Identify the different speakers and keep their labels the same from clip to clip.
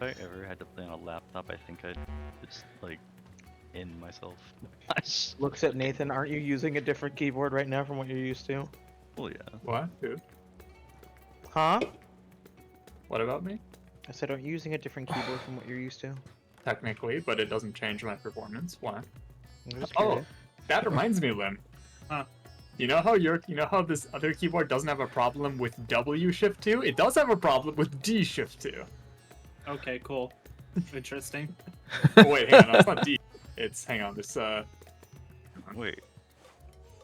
Speaker 1: I ever had to play on a laptop, I think I'd just like in myself. Gosh.
Speaker 2: Looks at Nathan. Aren't you using a different keyboard right now from what you're used to?
Speaker 3: Oh,
Speaker 1: Well, yeah.
Speaker 3: What, dude?
Speaker 2: Huh?
Speaker 3: What about me?
Speaker 2: I said, aren't you using a different keyboard from what you're used to?
Speaker 3: Technically, but it doesn't change my performance. What?
Speaker 2: I'm just
Speaker 3: Oh,
Speaker 2: curious.
Speaker 3: that reminds me, Lim.
Speaker 4: Huh.
Speaker 3: You know how your you know how this other keyboard doesn't have a problem with W shift two? It does have a problem with D shift two.
Speaker 4: Okay, cool. Interesting.
Speaker 3: Oh, wait, hang on, no, it's not D. It's hang on, this uh
Speaker 1: Wait.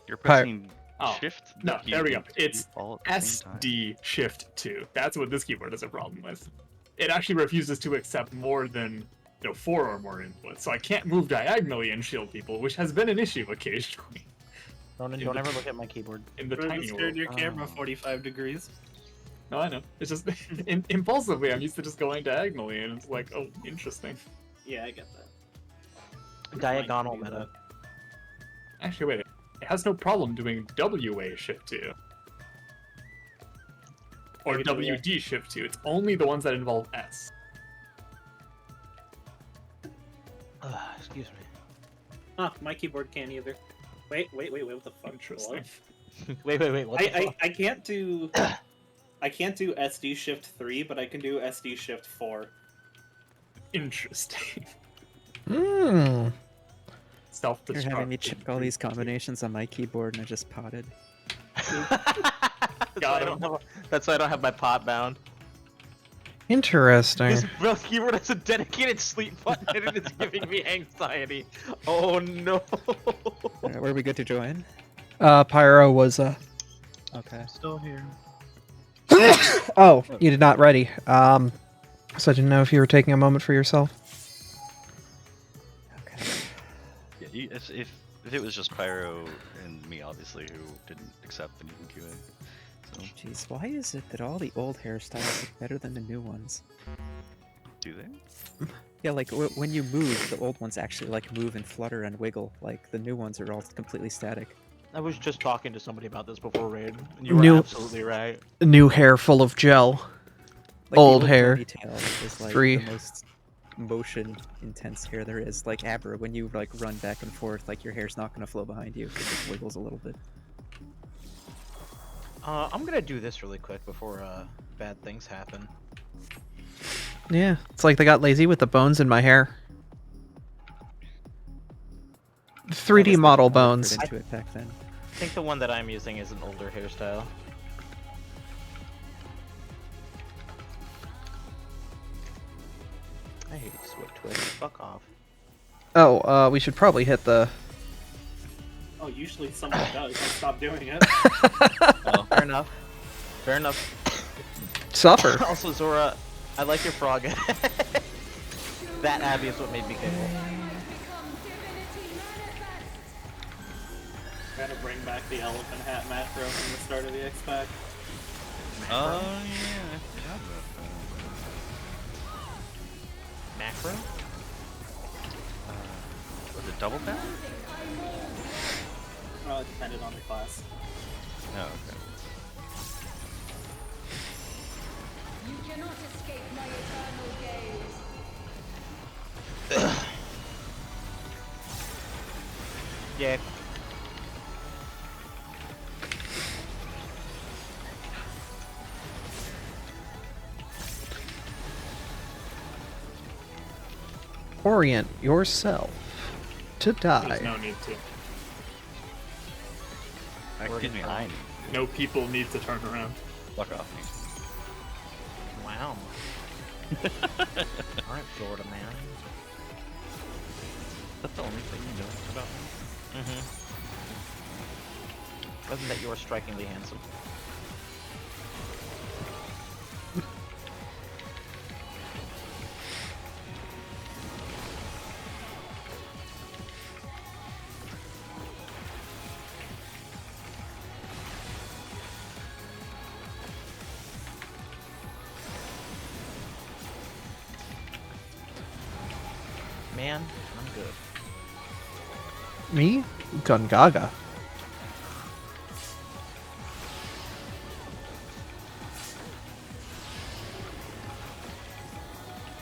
Speaker 1: You're
Speaker 5: Hi.
Speaker 1: pressing
Speaker 3: Oh,
Speaker 1: shift.
Speaker 3: no,
Speaker 1: key
Speaker 3: there we go.
Speaker 1: and Q
Speaker 3: It's
Speaker 1: all at the
Speaker 3: S
Speaker 1: same time.
Speaker 3: D shift two. That's what this keyboard has a problem with. It actually refuses to accept more than you know, four or more inputs, so I can't move diagonally and shield people, which has been an issue occasionally
Speaker 2: Ronan, don't ever look at my keyboard.
Speaker 3: in the
Speaker 4: Ronan,
Speaker 3: tiny
Speaker 4: turn
Speaker 3: world.
Speaker 4: your camera
Speaker 1: Oh.
Speaker 4: 45 degrees.
Speaker 3: No, I know. It's just im- impulsively. I'm used to just going diagonally, and it's like, oh, interesting.
Speaker 4: Yeah, I get that.
Speaker 2: Diagonal
Speaker 4: Fine, do
Speaker 2: meta.
Speaker 3: Actually, wait. It has no problem doing WA shift two. Or
Speaker 4: Maybe WA.
Speaker 3: WD shift two. It's only the ones that involve S.
Speaker 2: Ugh, excuse me.
Speaker 4: that. Huh, my keyboard can't either. Wait, wait, wait, wait, what the fuck?
Speaker 3: Interesting.
Speaker 2: Wait, wait, wait. What the
Speaker 4: I,
Speaker 2: fuck?
Speaker 4: I, I can't do I can't do SD shift three, but I can do SD shift four.
Speaker 3: Interesting.
Speaker 5: Mm.
Speaker 3: Self
Speaker 6: You're
Speaker 3: destruct.
Speaker 6: having me check all these combinations on my keyboard and I just potted.
Speaker 2: That's why I don't have a- That's why I don't have my pot bound. This
Speaker 5: Interesting.
Speaker 2: real keyboard has a dedicated sleep button and it is giving me anxiety. Oh no.
Speaker 6: All right, where are we good to join?
Speaker 5: Uh, Pyro was uh.
Speaker 6: Okay.
Speaker 2: Still here.
Speaker 5: Oh, you did not ready. Um, so I didn't know if you were taking a moment for yourself.
Speaker 6: Okay.
Speaker 1: Yeah, you- if, if if it was just Pyro and me, obviously, who didn't accept and you can So,
Speaker 6: Jeez, why is it that all the old hairstyles look better than the new ones?
Speaker 1: do they?
Speaker 6: Yeah, like w- when you move, the old ones actually like move and flutter and wiggle. Like the new ones are all completely static.
Speaker 2: I was just talking to somebody about this before raid. And you were
Speaker 5: Nope.
Speaker 2: absolutely right.
Speaker 5: New hair full of gel.
Speaker 6: Like, the
Speaker 5: Old hair.
Speaker 6: ponytail Is like
Speaker 5: Three.
Speaker 6: the most motion intense hair there is. Like Abra, when you like run back and forth, like your hair's not gonna flow behind you. It just wiggles a little bit.
Speaker 2: Uh, I'm gonna do this really quick before uh, bad things happen.
Speaker 5: Yeah, it's like they got lazy with the bones in my hair. 3D
Speaker 6: Unless they
Speaker 5: model
Speaker 6: put more effort
Speaker 5: bones.
Speaker 6: Into it back then.
Speaker 2: I think the one that I'm using is an older hairstyle. I hate Swift Twitch. Fuck off.
Speaker 5: Oh, uh, we should probably hit the.
Speaker 4: Oh, usually someone does. I stop doing it.
Speaker 2: Fair enough. Fair enough.
Speaker 5: Suffer.
Speaker 2: also, Zora, I like your frog. that Abby is what made me giggle.
Speaker 4: Gotta bring back the elephant hat macro from the start of the X Pack.
Speaker 1: Oh, yeah, I forgot about
Speaker 2: Macro?
Speaker 1: that. Uh, Was it double back?
Speaker 4: Well, it Uh, depended on the class.
Speaker 1: No, okay.
Speaker 7: You cannot escape my eternal gaze.
Speaker 2: Yeah.
Speaker 5: Orient yourself to
Speaker 3: There's
Speaker 5: die.
Speaker 3: no need to.
Speaker 1: Excuse me, I
Speaker 3: No people need to turn around.
Speaker 1: fuck off me.
Speaker 2: Wow. Alright, Florida man.
Speaker 1: That's the only thing you know about me.
Speaker 2: Mm-hmm. Wasn't that you were strikingly handsome? Man, I'm good.
Speaker 5: Me? Gungaga.